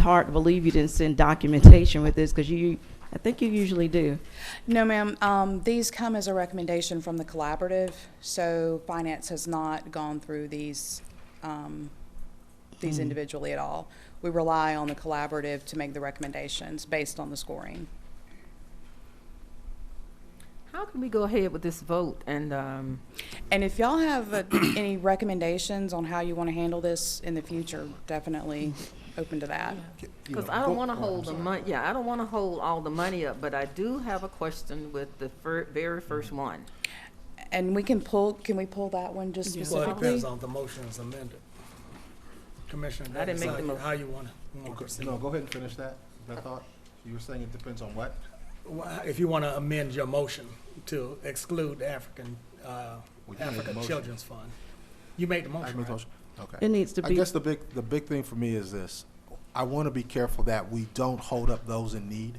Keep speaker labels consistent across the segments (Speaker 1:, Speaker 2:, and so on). Speaker 1: hard to believe you didn't send documentation with this, because you, I think you usually do.
Speaker 2: No, ma'am. Um, These come as a recommendation from the collaborative, so finance has not gone through these, um, these individually at all. We rely on the collaborative to make the recommendations based on the scoring.
Speaker 3: How can we go ahead with this vote and, um,
Speaker 2: And if y'all have uh, any recommendations on how you want to handle this in the future, definitely open to that.
Speaker 4: you
Speaker 3: cause
Speaker 4: know,
Speaker 3: I don't
Speaker 4: go-
Speaker 3: wanna
Speaker 4: oh, I'm
Speaker 3: hold the
Speaker 4: sorry.
Speaker 3: mon, yeah, I don't wanna hold all the money up, but I do have a question with the fir- very
Speaker 4: Mm-hmm.
Speaker 3: first one.
Speaker 2: And we can pull, can we pull that one just
Speaker 4: Well, it
Speaker 2: specifically?
Speaker 4: depends on the motion is amended. Commissioner,
Speaker 3: I didn't make the
Speaker 4: decide
Speaker 3: motion.
Speaker 4: how you wanna, you wanna
Speaker 5: Okay,
Speaker 4: proceed.
Speaker 5: No, go ahead and finish that, that thought. You were saying it depends on what?
Speaker 4: Wha- If you wanna amend your motion to exclude African, uh,
Speaker 5: Well, you made the
Speaker 4: African
Speaker 5: motion.
Speaker 4: Children's Fund. You made the
Speaker 5: I
Speaker 4: motion,
Speaker 5: made the
Speaker 4: right?
Speaker 5: motion. Okay.
Speaker 1: It needs to
Speaker 5: I
Speaker 1: be,
Speaker 5: guess the big, the big thing for me is this. I want to be careful that we don't hold up those in need,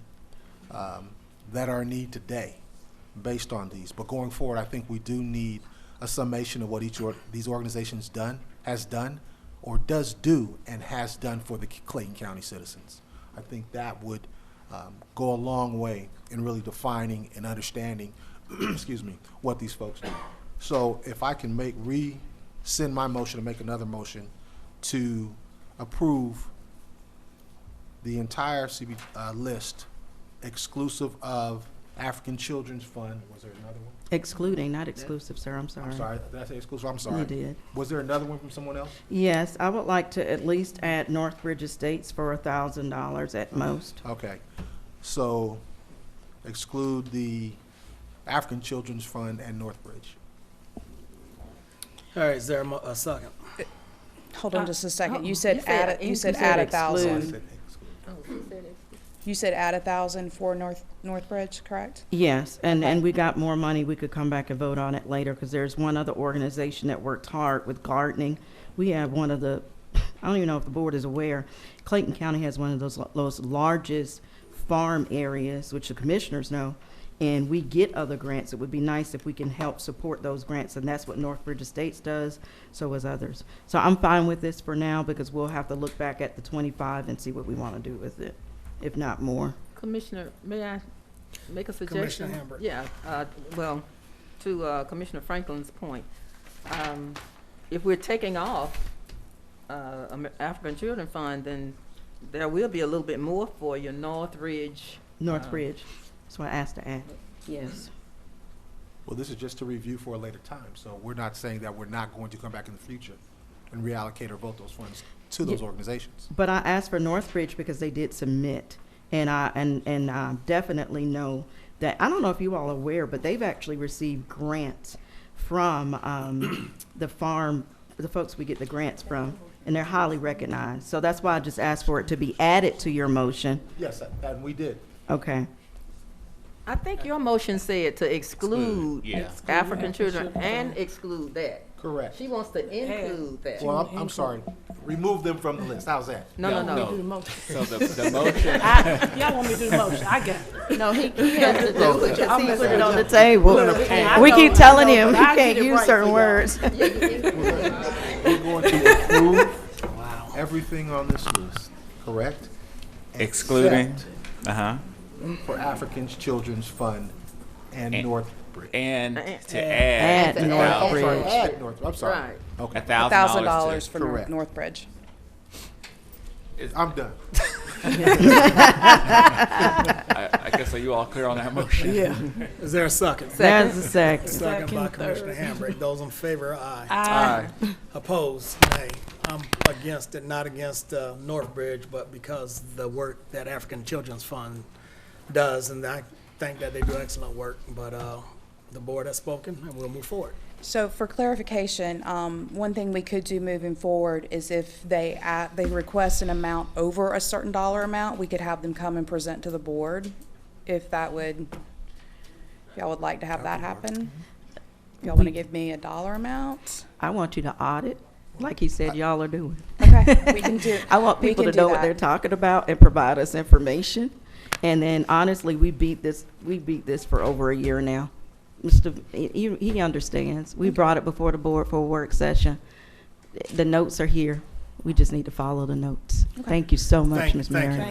Speaker 5: um, that are in need today based on these. But going forward, I think we do need a summation of what each of these organizations done, has done, or does do and has done for the Clayton County citizens. I think that would um, go a long way in really defining and understanding, excuse me, what these folks do. So if I can make, rescind my motion and make another motion to approve the entire CB, uh, list exclusive of African Children's Fund, was there another one?
Speaker 1: excluding, not exclusive, sir, I'm sorry.
Speaker 5: I'm sorry, did I say exclusive? I'm
Speaker 1: You
Speaker 5: sorry.
Speaker 1: did.
Speaker 5: Was there another one from someone else?
Speaker 1: Yes, I would like to at least add Northbridge Estates for a thousand dollars at most.
Speaker 5: Okay, so exclude the African Children's Fund and Northbridge.
Speaker 4: All right, is there a mo- a second?
Speaker 2: Hold on
Speaker 3: Uh,
Speaker 2: just a second. You
Speaker 3: uh-uh.
Speaker 2: said
Speaker 3: You said
Speaker 2: add, a- you
Speaker 3: in-
Speaker 2: said
Speaker 3: you
Speaker 2: add
Speaker 3: said
Speaker 2: a
Speaker 1: exclude.
Speaker 2: thousand.
Speaker 3: Oh, she said it.
Speaker 2: You said add a thousand for North, Northbridge, correct?
Speaker 1: Yes, and, and we got more money, we could come back and vote on it later, because there's one other organization that worked hard with gardening. We have one of the, I don't even know if the board is aware, Clayton County has one of those, those largest farm areas, which the commissioners know, and we get other grants. It would be nice if we can help support those grants, and that's what Northbridge Estates does, so as others. So I'm fine with this for now, because we'll have to look back at the twenty-five and see what we want to do with it, if not more.
Speaker 3: Commissioner, may I make a suggestion?
Speaker 4: Commissioner Hambrick.
Speaker 3: Yeah, uh, well, to uh, Commissioner Franklin's point, um, if we're taking off uh, Amer- African Children Fund, then there will be a little bit more for your Northridge.
Speaker 1: Northbridge, that's what I asked to add. Yes.
Speaker 5: Well, this is just to review for a later time, so we're not saying that we're not going to come back in the future and reallocate or vote those funds to those
Speaker 1: Ye-
Speaker 5: organizations.
Speaker 1: But I asked for Northbridge because they did submit, and I, and, and I definitely know that, I don't know if you all are aware, but they've actually received grants from, um, the farm, the folks we get the grants from, and they're highly recognized. So that's why I just asked for it to be added to your motion.
Speaker 5: Yes, and we did.
Speaker 1: Okay.
Speaker 3: I think your motion said to exclude
Speaker 6: yeah.
Speaker 3: African children and exclude that.
Speaker 5: Correct.
Speaker 3: She wants to include that.
Speaker 5: Well, I'm, I'm sorry. Remove them from the list. How's that?
Speaker 3: No, no, no.
Speaker 6: So the, the motion,
Speaker 7: Y'all want me to do the motion, I got it.
Speaker 3: No, he he has to do it.
Speaker 1: He put it on the table.
Speaker 7: I
Speaker 1: We
Speaker 7: know,
Speaker 1: keep
Speaker 7: I
Speaker 1: telling
Speaker 7: know,
Speaker 1: him, you
Speaker 7: but I
Speaker 1: can't
Speaker 7: did it
Speaker 1: use
Speaker 7: right
Speaker 1: certain
Speaker 7: for y'all.
Speaker 1: words.
Speaker 5: We're going to approve everything on this list, correct?
Speaker 6: excluding,
Speaker 5: Except
Speaker 6: uh-huh,
Speaker 5: For Africans Children's Fund and
Speaker 6: And-
Speaker 5: Northbridge.
Speaker 6: and
Speaker 3: And-
Speaker 6: to add.
Speaker 1: Add the
Speaker 6: about
Speaker 5: Oh, I'm sorry,
Speaker 1: Northbridge.
Speaker 5: add North, I'm sorry.
Speaker 3: Right.
Speaker 5: Okay,
Speaker 6: A thousand
Speaker 2: Thousand
Speaker 6: dollars
Speaker 2: dollars
Speaker 6: to,
Speaker 2: for Nor-
Speaker 5: Correct.
Speaker 2: Northbridge.
Speaker 5: I'm done.
Speaker 6: I, I guess are you all clear on that motion?
Speaker 7: Yeah.
Speaker 4: Is there a second?
Speaker 1: That's a second.
Speaker 4: Second by
Speaker 7: Second,
Speaker 4: Commissioner Hambrick. Those in favor, aye. Opposed, nay. I'm against it, not against uh, Northbridge, but because the work that African Children's Fund does, and I think that they do excellent work, but uh, the board has spoken, and we'll move forward.
Speaker 2: So for clarification, um, one thing we could do moving forward is if they, a- they request an amount over a certain dollar amount, we could have them come and present to the board, if that would, if y'all would like to have that happen. If y'all want to give me a dollar amount,
Speaker 1: I want you to audit, like he said y'all are doing.
Speaker 2: okay, we can do.
Speaker 1: I want
Speaker 2: we
Speaker 1: people to
Speaker 2: can do
Speaker 1: know what
Speaker 2: that.
Speaker 1: they're talking about and provide us information. And then honestly, we beat this, we beat this for over a year now. Mr., he, he understands. We brought it before the board for a work session. The notes are here.
Speaker 4: We just need to follow the notes. Thank you so much,
Speaker 1: Thank-
Speaker 4: Ms.
Speaker 1: thank you.
Speaker 4: Marion.